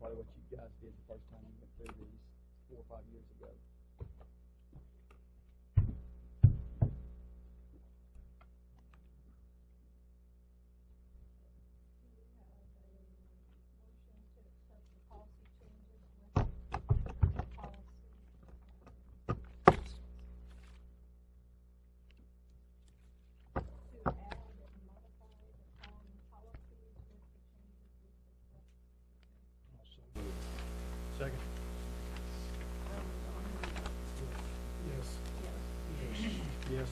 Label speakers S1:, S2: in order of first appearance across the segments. S1: probably what you guys did the first time you went through these four or five years ago.
S2: Second? Yes. Yes. Yes.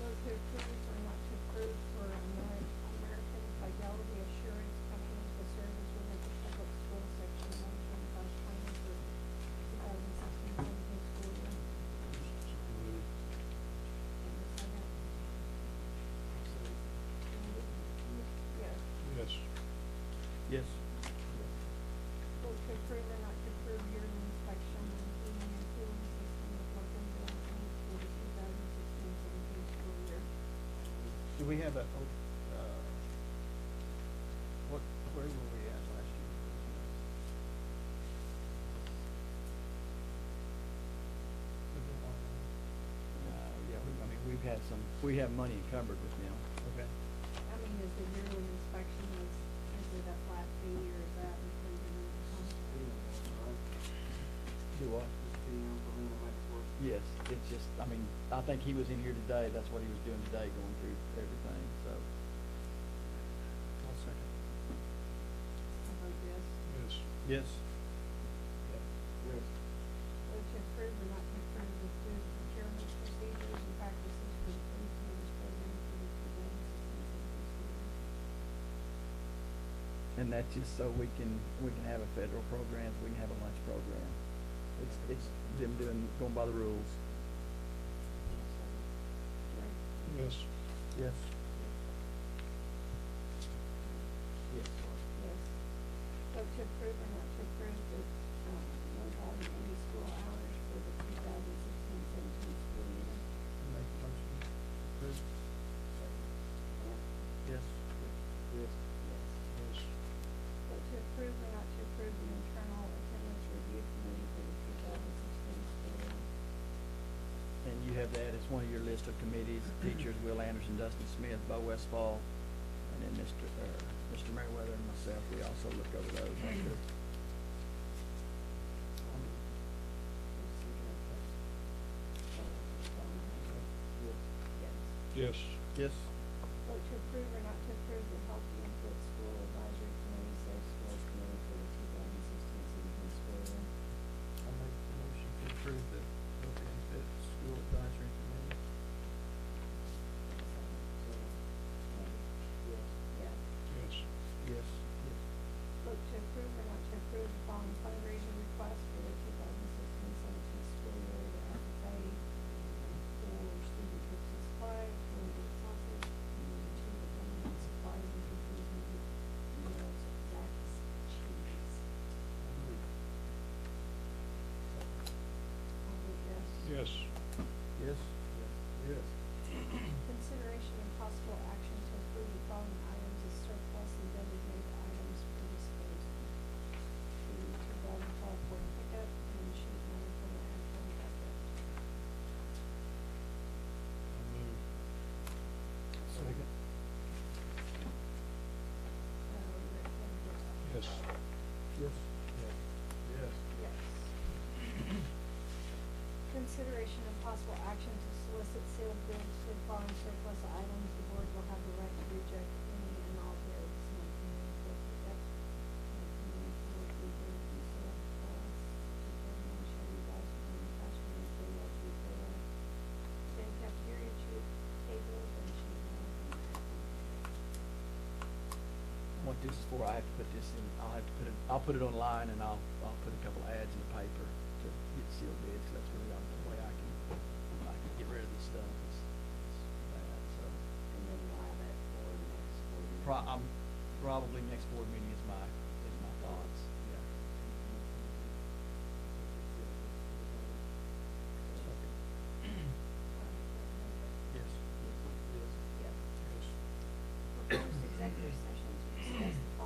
S3: Those who approve or not to approve for Ameri- American Fidelity Assurance Company for service within the public school section one twenty-five twenty for two thousand sixteen seventeen school year. And the second, and, yes.
S2: Yes. Yes.
S3: Vote to approve or not to approve yearly inspection of heating and cooling system of Martinsville County for the two thousand sixteen seventeen school year.
S2: Do we have a, oh, uh, what, where were we at last year?
S1: Uh, yeah, we, I mean, we've had some, we have money encumbered with them.
S2: Okay.
S3: I mean, is the yearly inspection, is, is it a flat fee or is that included in the contract?
S1: Do what? Yes, it's just, I mean, I think he was in here today, that's what he was doing today, going through everything, so.
S2: I'll second.
S3: I vote yes.
S2: Yes. Yes.
S3: Vote to approve or not to approve the student procurement procedures and practices for the food service program for the two thousand sixteen seventeen school year.
S1: And that's just so we can, we can have a federal program, we can have a lunch program. It's, it's them doing, going by the rules.
S3: Right.
S2: Yes. Yes.
S1: Yes.
S3: Yes. Vote to approve or not to approve the, um, one thousand eighty school hours for the two thousand sixteen seventeen school year.
S2: Make the motion. Approve. Yes. Yes. Yes.
S3: Vote to approve or not to approve the internal attendance review committee for the two thousand sixteen school year.
S1: And you have that as one of your list of committees, teachers, Will Anderson, Dustin Smith, Bo Westfall, and then Mr., uh, Mr. Merriweather and myself, we also look over those. after.
S3: Yes.
S2: Yes. Yes.
S3: Vote to approve or not to approve the healthy and fit school advisory committee, safe schools committee for the two thousand sixteen seventeen school year.
S2: I'll make the motion to approve the health and fit school advisory committee.
S3: Yes.
S2: Yes. Yes.
S3: Vote to approve or not to approve the following fundraising request for the two thousand sixteen seventeen school year to FFA for student trips and supplies, for the sausage, and to the government supplies and cookies and meals, Zaxby's. I'll vote yes.
S2: Yes. Yes. Yes.
S3: Consideration and possible action to approve the following items as surplus and designated items for disposal. The two thousand twelve Ford pickup and sheet metal for the actual pickup.
S2: I'll move. Second.
S3: Um, Rick, how do you vote?
S2: Yes. Yes. Yes.
S3: Yes. Consideration and possible action to solicit sale bids for the following surplus items. The board will have the right to reject any and all bids. Not committed for pickup, not committed for rebuild, resale, class, determination, Chevy Boss, and cash for large retail. Then cafeteria chew- tables and sheet metal and
S1: What this is for, I have to put this in, I'll have to put it, I'll put it online and I'll, I'll put a couple ads in the paper to get sealed bids, 'cause that's really the only way I can, I can get rid of this stuff. It's, it's bad, so.
S3: and then live at for next
S1: Pro,
S3: quarter.
S1: um, i probably next board meeting is my, is my thoughts, yeah.
S2: Yes.
S3: Proposed executive session